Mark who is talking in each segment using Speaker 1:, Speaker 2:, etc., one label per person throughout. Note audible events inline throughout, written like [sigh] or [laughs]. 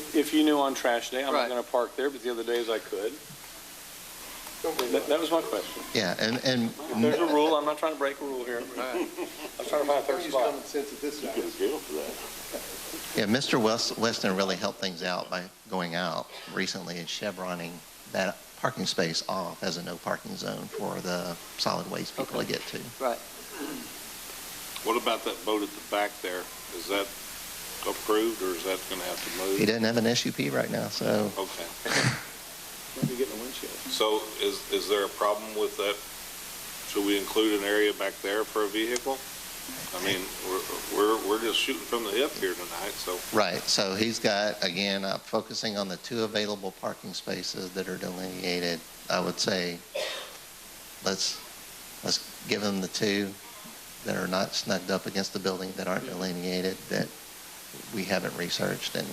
Speaker 1: If, if you knew on trash day, I'm
Speaker 2: Right.
Speaker 1: not going to park there, but the other days I could.
Speaker 3: Don't be
Speaker 1: That, that was my question.
Speaker 4: Yeah, and, and
Speaker 1: If there's a rule, I'm not trying to break a rule here.
Speaker 2: All right.
Speaker 1: I'm trying to find a third
Speaker 3: Use
Speaker 1: spot.
Speaker 3: common sense at this time.
Speaker 4: Yeah, Mr. Wes- Weston really helped things out by going out recently and chevroning that parking space off as a no parking zone for the solid waste people to get to.
Speaker 5: What about that boat at the back there? Is that approved or is that going to have to move?
Speaker 4: He doesn't have an SUP right now, so
Speaker 5: Okay.
Speaker 3: Let me get in the windshield.
Speaker 5: So is, is there a problem with that? Should we include an area back there for a vehicle? I mean, we're, we're, we're just shooting from the hip here tonight, so.
Speaker 4: Right, so he's got, again, uh, focusing on the two available parking spaces that are delineated. I would say, let's, let's give him the two that are not snugged up against the building, that aren't delineated, that we haven't researched, and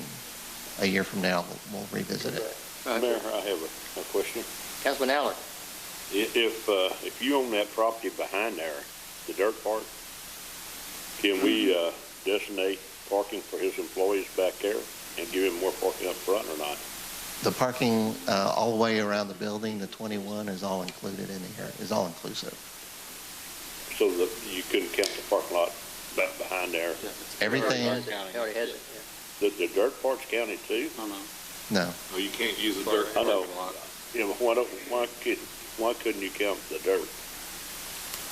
Speaker 4: a year from now, we'll revisit it.
Speaker 2: Mayor,
Speaker 6: I have a, a question.
Speaker 2: Councilman Allen,
Speaker 6: I- If, uh, if you own that property behind there, the dirt park, can we, uh, designate parking for his employees back there and give him more parking up front or not?
Speaker 4: The parking uh, all the way around the building, the 21, is all included in here, is all inclusive.
Speaker 6: So that you couldn't count the parking lot back behind there.
Speaker 4: Everything,
Speaker 2: he already has it.
Speaker 6: The, the dirt part's county too?
Speaker 4: no,
Speaker 5: No, Oh, you can't use the dirt
Speaker 6: I know.
Speaker 5: parking lot.
Speaker 6: You know, why don't, why could, why couldn't you count the dirt?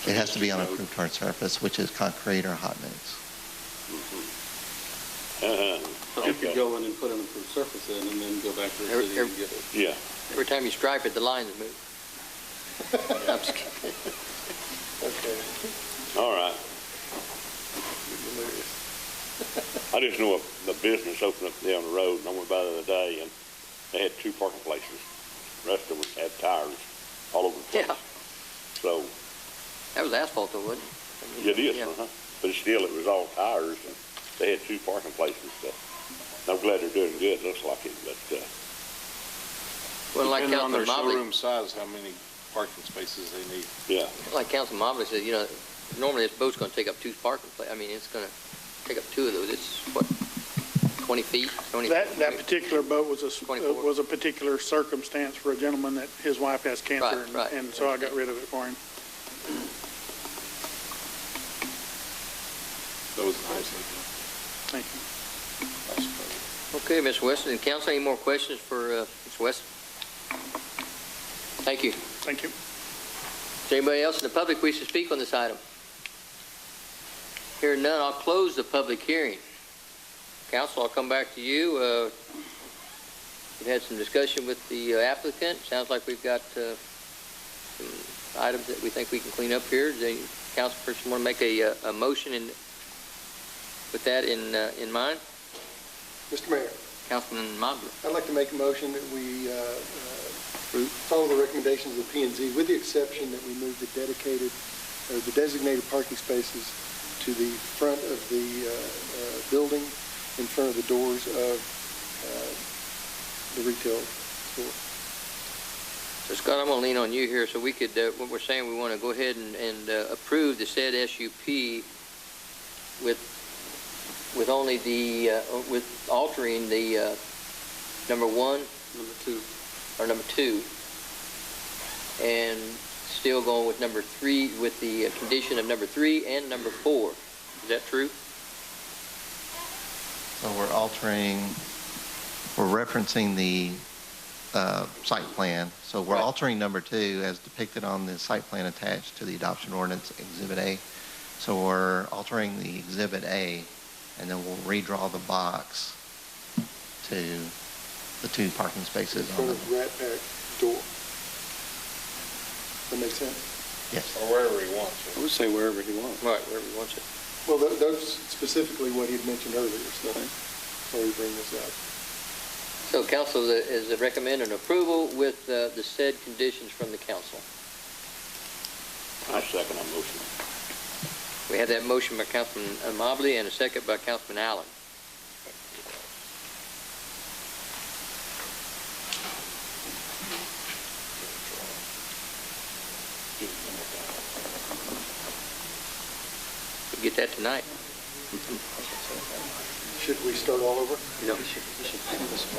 Speaker 6: [laughs]
Speaker 4: it has to be on approved hard surface, which is concrete or hot mix.
Speaker 6: Uh-huh.
Speaker 3: But you could
Speaker 6: Okay.
Speaker 3: go in and put an improved surface in and then go back to the city and get it.
Speaker 6: Yeah.
Speaker 2: Every time you stripe it, the lines move. [laughs] I'm just kidding.
Speaker 3: Okay.
Speaker 6: All right. I just know a, a business opened up down the road, and I went by the other day, and they had two parking places. The rest of them had tires all over the place.
Speaker 2: Yeah.
Speaker 6: So,
Speaker 2: That was asphalt though, wasn't it?
Speaker 6: it is,
Speaker 2: Yeah.
Speaker 6: uh-huh. But still, it was all tires, and they had two parking places, so. And I'm glad they're doing good, looks like it, but, uh,
Speaker 2: Well, like
Speaker 5: Depending on their
Speaker 2: Councilman Mobley,
Speaker 5: showroom size, how many parking spaces they need.
Speaker 6: yeah.
Speaker 2: like Councilman Mobley said, you know, normally this boat's gonna take up two parking pla, I mean, it's gonna take up two of those. It's what, twenty feet, twenty?
Speaker 7: That, that particular boat was a, s- uh,
Speaker 2: 24.
Speaker 7: was a particular circumstance for a gentleman that his wife has cancer.
Speaker 2: Right,
Speaker 7: and-
Speaker 2: right.
Speaker 7: And so I got rid of it for him.
Speaker 5: That was nice.
Speaker 7: Thank you.
Speaker 2: Okay, Ms. Weston, and council, any more questions for, uh, Ms. Weston? Thank you.
Speaker 7: Thank you.
Speaker 2: Is there anybody else in the public wish to speak on this item? Hearing none, I'll close the public hearing. Council, I'll come back to you. Uh, We've had some discussion with the uh, applicant. Sounds like we've got uh, some items that we think we can clean up here. Does any councilperson want to make a, uh, a motion in, with that in, uh, in mind?
Speaker 3: Mr. Mayor,
Speaker 2: Councilman Mobley?
Speaker 3: I'd like to make a motion that we uh, uh, follow the recommendations of the P and Z with the exception that we move the dedicated, or the designated parking spaces to the front of the uh, uh, building, in front of the doors of uh, the retail store.
Speaker 2: So Scott, I'm going to lean on you here, so we could, uh, what we're saying, we want to go ahead and- and uh, approve the said SUP with, with only the, uh, with altering the uh, number one
Speaker 3: Number two.
Speaker 2: or number two, and still going with number three, with the uh, condition of number three and number four. Is that true?
Speaker 4: So we're altering, we're referencing the uh, site plan. So we're
Speaker 2: Right.
Speaker 4: altering number two as depicted on the site plan attached to the adoption ordinance Exhibit A. So we're altering the Exhibit A, and then we'll redraw the box to the two parking
Speaker 3: In
Speaker 4: spaces on
Speaker 3: front
Speaker 4: the,
Speaker 3: of Rat Pack door. That makes sense?
Speaker 4: yes.
Speaker 5: Or wherever he wants.
Speaker 1: I would say wherever he wants.
Speaker 2: Right, wherever you want it.
Speaker 3: Well, tho- that's specifically what he'd mentioned earlier, so sorry to bring this up.
Speaker 2: So council is is recommending approval with uh, the said conditions from the council.
Speaker 6: I second that motion.
Speaker 2: We have that motion by Councilman uh, Mobley and a second by Councilman Allen. We'll get that tonight.
Speaker 3: Should we start all over?